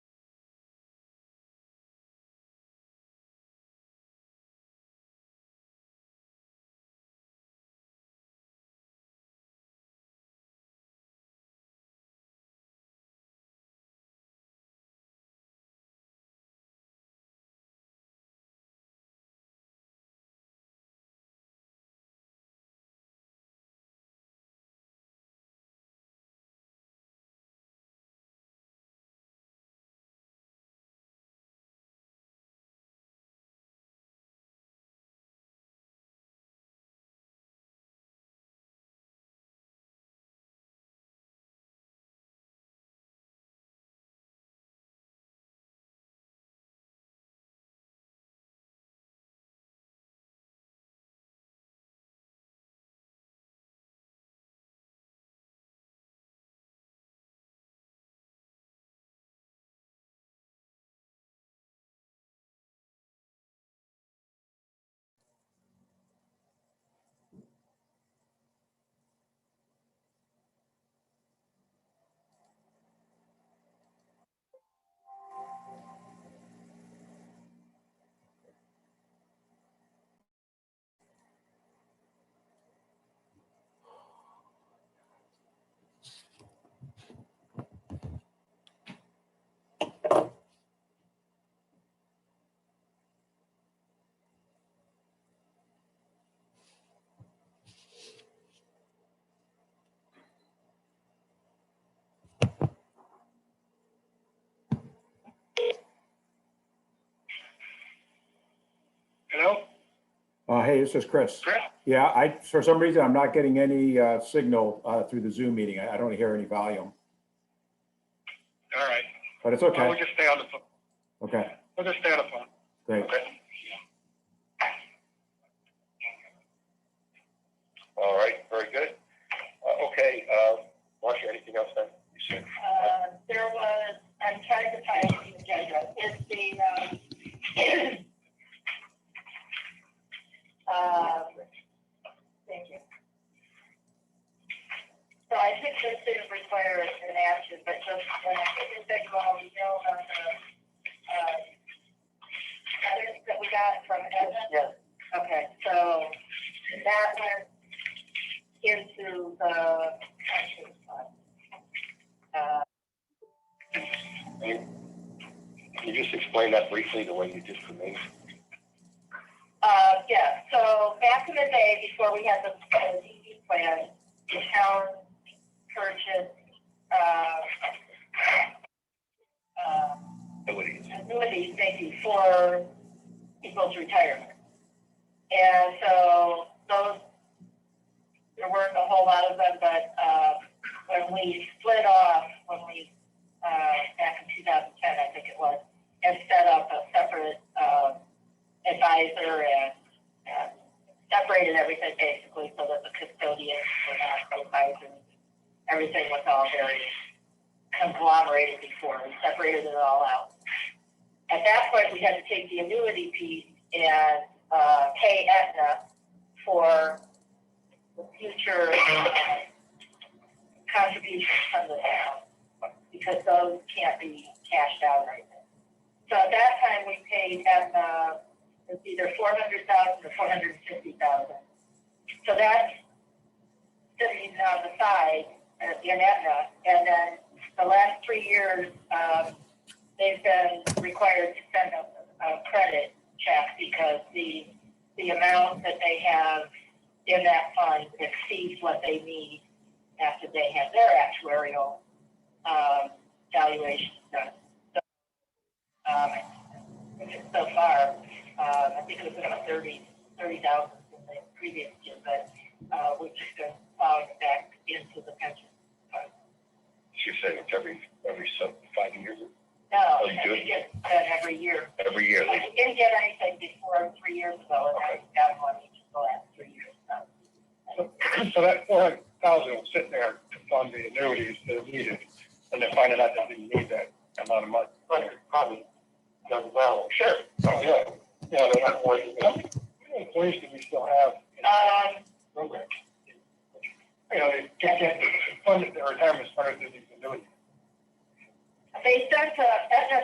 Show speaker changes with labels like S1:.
S1: Uh, hey, this is Chris.
S2: Chris?
S1: Yeah, I, for some reason, I'm not getting any, uh, signal, uh, through the Zoom meeting. I I don't hear any volume,
S2: All right.
S1: but it's
S2: Well, we'll
S1: Oh, okay.
S2: just stay on the phone.
S1: Okay,
S2: We'll just stay on the phone.
S1: great.
S2: Okay. All right, very good. Uh, okay, uh, Marcia, anything else then? You said-
S3: Uh, there was, I'm trying to find the agenda, it's the, um, uh, thank you. So I think this didn't require an action, but just, when I think that you all know about the, uh, letters that we got from Edna? Yes. Okay, so that went into the action fund. Uh,
S2: Can you just explain that briefly, the way you did for me?
S3: Uh, yeah, so back in the day, before we had the uh, DD plan, the town purchased, uh, uh,
S2: Abilities.
S3: annuities maybe for people's retirement. And so those, there weren't a whole lot of them, but, uh, when we split off, when we, uh, back in two thousand ten, I think it was, and set up a separate, um, advisor and, uh, separated everything basically so that the custodians were not advisors. Everything was all very conglomerated before, we separated it all out at that point, we had to take the annuity piece and uh, pay Aetna for the future uh, contributions from the town, because those can't be cashed out right now. So at that time, we paid Aetna, it's either four hundred thousand or four hundred fifty thousand. So that's sitting on the side uh, in Aetna, and then the last three years, um, they've been required to send a, a credit check because the, the amount that they have in that fund exceeds what they need after they have their actuarial, um, valuation done. So, Um, so far, um, I think it was about thirty, thirty thousand in the previous year, but, uh, we're just gonna plow it back into the pension fund.
S2: She said it's every, every sub, five years,
S3: No,
S2: Oh, you do it?
S3: we get that every year.
S2: every year.
S3: I
S2: they-
S3: didn't get anything before three years ago, and I got one each of the last three years, so.
S4: So that four hundred thousand will sit there to fund the annuities that are needed, and they're finding out that they need that amount of money.
S2: Probably done well. Sure.
S4: Oh, yeah, yeah, they're not worried. How many how many employees do we still have in our
S3: Um,
S4: program? You know, they can't get funded, their retirement funded through these annuities.
S3: they sent, uh, Aetna